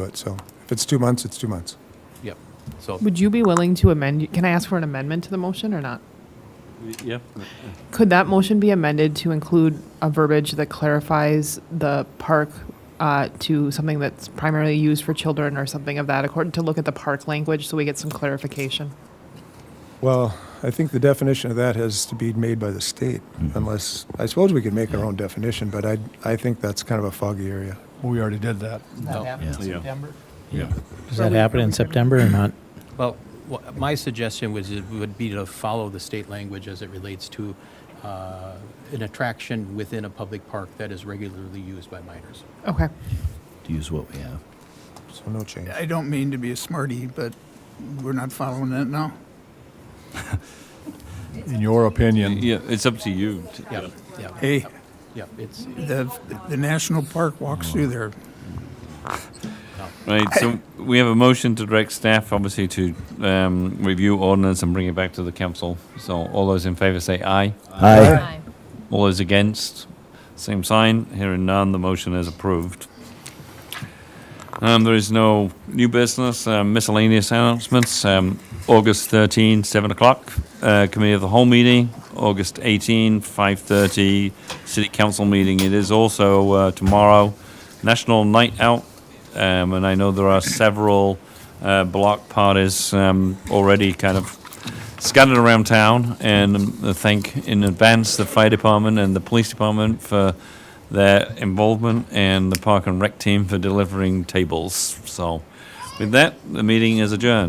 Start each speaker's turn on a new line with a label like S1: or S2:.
S1: do it, so if it's two months, it's two months.
S2: Yep. So,
S3: Would you be willing to amend, can I ask for an amendment to the motion or not?
S4: Yeah,
S3: Could that motion be amended to include a verbiage that clarifies the park uh, to something that's primarily used for children or something of that, according, to look at the park language so we get some clarification?
S1: Well, I think the definition of that has to be made by the state, unless, I suppose we could make our own definition, but I, I think that's kind of a foggy area.
S5: Well, we already did that.
S2: No.
S4: in Yeah.
S5: September?
S6: Does that happen in September or not?
S2: well, wha- my suggestion was, it would be to follow the state language as it relates to uh, an attraction within a public park that is regularly used by minors.
S3: Okay.
S7: to use what we have.
S1: So no change.
S8: I don't mean to be a smarty, but we're not following it now.
S5: In your opinion,
S4: yeah, it's up to you. to-
S2: Yeah, yeah,
S8: Hey,
S2: yeah, it's,
S8: the, the national park walks through there.
S4: Right, so we have a motion to direct staff, obviously, to um, review ordinance and bring it back to the council. So all those in favor say aye.
S6: Aye.
S4: All those against, same sign. Hearing none, the motion is approved. Um, There is no new business, um, miscellaneous announcements. Um, August 13, 7 o'clock, uh, Committee of the Whole meeting. August 18, 5:30, City Council meeting. It is also uh, tomorrow, National Night Out, um, and I know there are several uh, block parties um, already kind of scattered around town and um, I thank in advance the fire department and the police department for their involvement and the park and rec team for delivering tables. So with that, the meeting is adjourned.